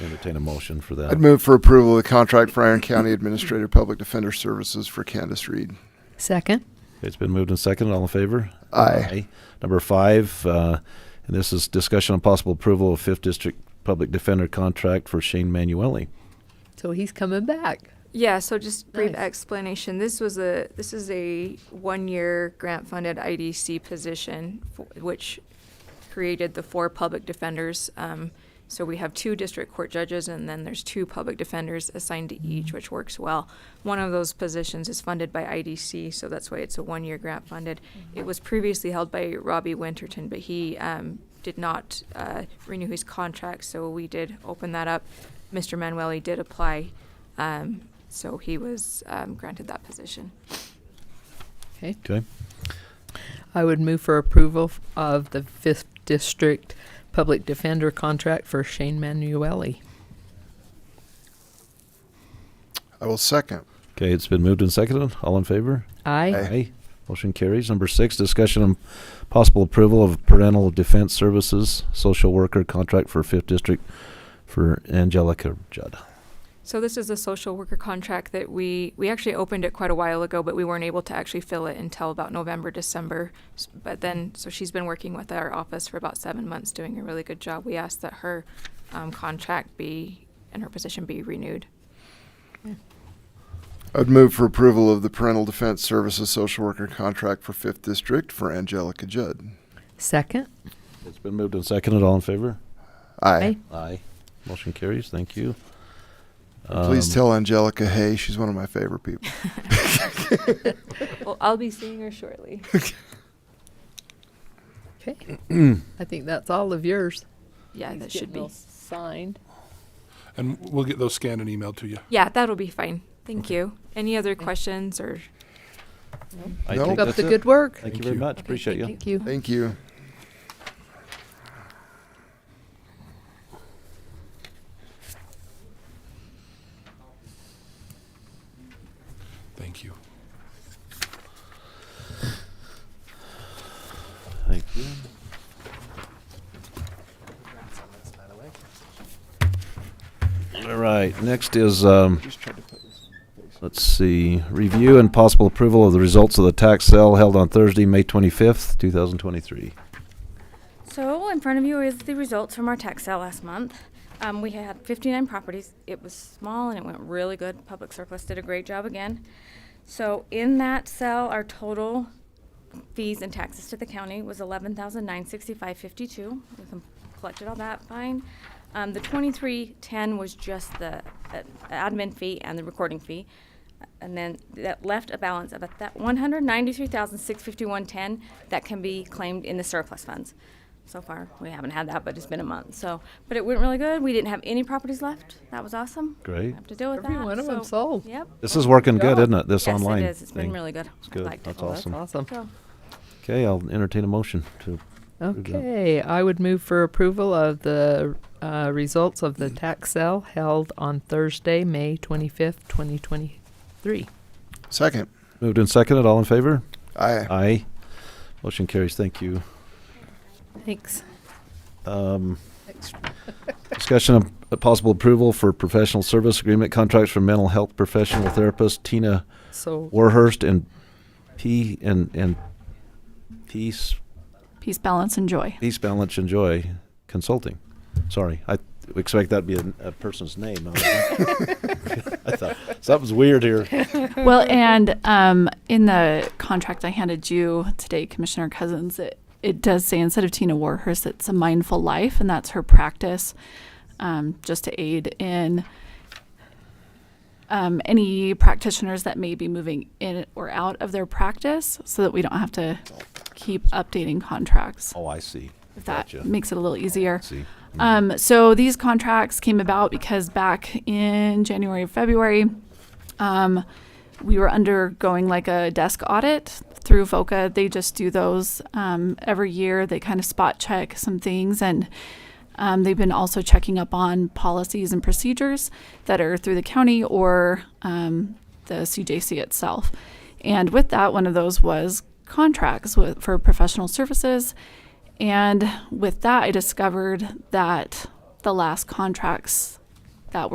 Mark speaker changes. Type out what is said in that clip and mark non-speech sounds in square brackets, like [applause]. Speaker 1: entertain a motion for
Speaker 2: I'd
Speaker 1: that.
Speaker 2: move for approval of the contract for Iron County Administrator Public Defender Services for Candace Reed.
Speaker 3: Second.
Speaker 1: It's been moved and seconded. All in favor?
Speaker 2: Aye.
Speaker 1: Number five, uh, and this is discussion on possible approval of Fifth District Public Defender contract for Shane Manueli.
Speaker 3: So he's coming back.
Speaker 4: Yeah, so just brief
Speaker 3: Nice.
Speaker 4: explanation. This was a, this is a one-year grant-funded IDC position, fo- which created the four public defenders. Um, So we have two district court judges, and then there's two public defenders assigned to each, which works well. One of those positions is funded by IDC, so that's why it's a one-year grant-funded. It was previously held by Robbie Winterton, but he um, did not uh, renew his contract, so we did open that up. Mr. Manueli did apply, um, so he was um, granted that position.
Speaker 3: Okay.
Speaker 1: Okay?
Speaker 3: I would move for approval f- of the fifth district public defender contract for Shane Manueli.
Speaker 2: I will second.
Speaker 1: Okay, it's been moved and seconded. All in favor?
Speaker 3: Aye.
Speaker 2: Aye.
Speaker 1: Motion carries. Number six, discussion on possible approval of parental defense services, social worker contract for Fifth District for Angelica Judd.
Speaker 4: So this is a social worker contract that we, we actually opened it quite a while ago, but we weren't able to actually fill it until about November, December. S- But then, so she's been working with our office for about seven months, doing a really good job. We asked that her um, contract be, and her position be renewed.
Speaker 2: I'd move for approval of the Parental Defense Services Social Worker Contract for Fifth District for Angelica Judd.
Speaker 3: Second.
Speaker 1: It's been moved and seconded. All in favor?
Speaker 2: Aye.
Speaker 1: Aye. Motion carries. Thank you.
Speaker 2: Please
Speaker 1: Um,
Speaker 2: tell Angelica, hey, she's one of my favorite people.
Speaker 4: Well, I'll be seeing her shortly.
Speaker 1: [clears throat]
Speaker 3: Okay. I think that's all of yours.
Speaker 4: Yeah,
Speaker 3: These
Speaker 4: that
Speaker 3: get
Speaker 4: should
Speaker 3: all
Speaker 4: be.
Speaker 3: Signed.
Speaker 5: And we'll get those scanned and emailed to you.
Speaker 4: Yeah, that'll be fine. Thank you. Any other questions or?
Speaker 1: I
Speaker 2: No.
Speaker 1: think
Speaker 3: Keep up
Speaker 1: that's
Speaker 3: the
Speaker 1: it.
Speaker 3: good work.
Speaker 1: Thank you
Speaker 5: Thank
Speaker 1: very
Speaker 5: you.
Speaker 1: much. Appreciate you.
Speaker 3: Thank you.
Speaker 2: Thank you.
Speaker 5: Thank you.
Speaker 1: Thank you. All right, next is, um, let's see, review and possible approval of the results of the tax sale held on Thursday, May twenty-fifth, two thousand twenty-three.
Speaker 6: So in front of you is the results from our tax sale last month. Um, we had 59 properties. It was small and it went really good. Public Surplus did a great job again. So in that sale, our total fees and taxes to the county was 11,965.52. We com- collected all that fine. Um, the 2310 was just the uh, admin fee and the recording fee. And then that left a balance of a th- one hundred ninety-three thousand six fifty-one ten that can be claimed in the surplus funds. So far, we haven't had that, but it's been a month, so, but it went really good. We didn't have any properties left. That was awesome.
Speaker 1: Great.
Speaker 6: Have to deal with that.
Speaker 3: Every one of 'em
Speaker 6: so-
Speaker 3: sold.
Speaker 6: Yep.
Speaker 1: This is working good,
Speaker 3: Yeah.
Speaker 1: isn't it, this
Speaker 6: Yes, it
Speaker 1: online
Speaker 6: is. It's been
Speaker 1: thing?
Speaker 6: really good.
Speaker 1: It's
Speaker 6: I've
Speaker 1: good.
Speaker 6: liked it.
Speaker 1: That's
Speaker 6: Oh,
Speaker 1: awesome.
Speaker 3: Awesome.
Speaker 6: So,
Speaker 1: Okay, I'll entertain a motion to, that.
Speaker 3: Okay, I would move for approval of the uh, results of the tax sale held on Thursday, May 25th, 2023.
Speaker 2: Second.
Speaker 1: moved and seconded, all in favor?
Speaker 2: Aye.
Speaker 1: Aye. Motion carries, thank you.
Speaker 3: Thanks.
Speaker 1: Um, discussion of a possible approval for professional service agreement contracts for mental health professional therapist Tina
Speaker 3: So,
Speaker 1: Warhurst and P and, and Peace,
Speaker 7: Peace, balance, and
Speaker 6: [laughs]
Speaker 7: joy.
Speaker 1: Peace Balance and Joy Consulting. Sorry, I expect that'd be a, a person's name. I [laughs] thought, something's weird here.
Speaker 7: well, and um, in the contract I handed you today, Commissioner Cousins, it, it does say instead of Tina Warhurst, it's a mindful life, and that's her practice um, just to aid in um, any practitioners that may be moving in or out of their practice so that we don't have to keep updating contracts,
Speaker 1: Oh, I see.
Speaker 7: if that
Speaker 1: Gotcha.
Speaker 7: makes it a little easier.
Speaker 1: See.
Speaker 7: Um, so these contracts came about because back in January, February, um, we were undergoing like a desk audit through FOCA. They just do those um, every year. They kind of spot check some things, and um, they've been also checking up on policies and procedures that are through the county or um, the CJC itself. And with that, one of those was contracts with, for professional services. And with that, I discovered that the last contracts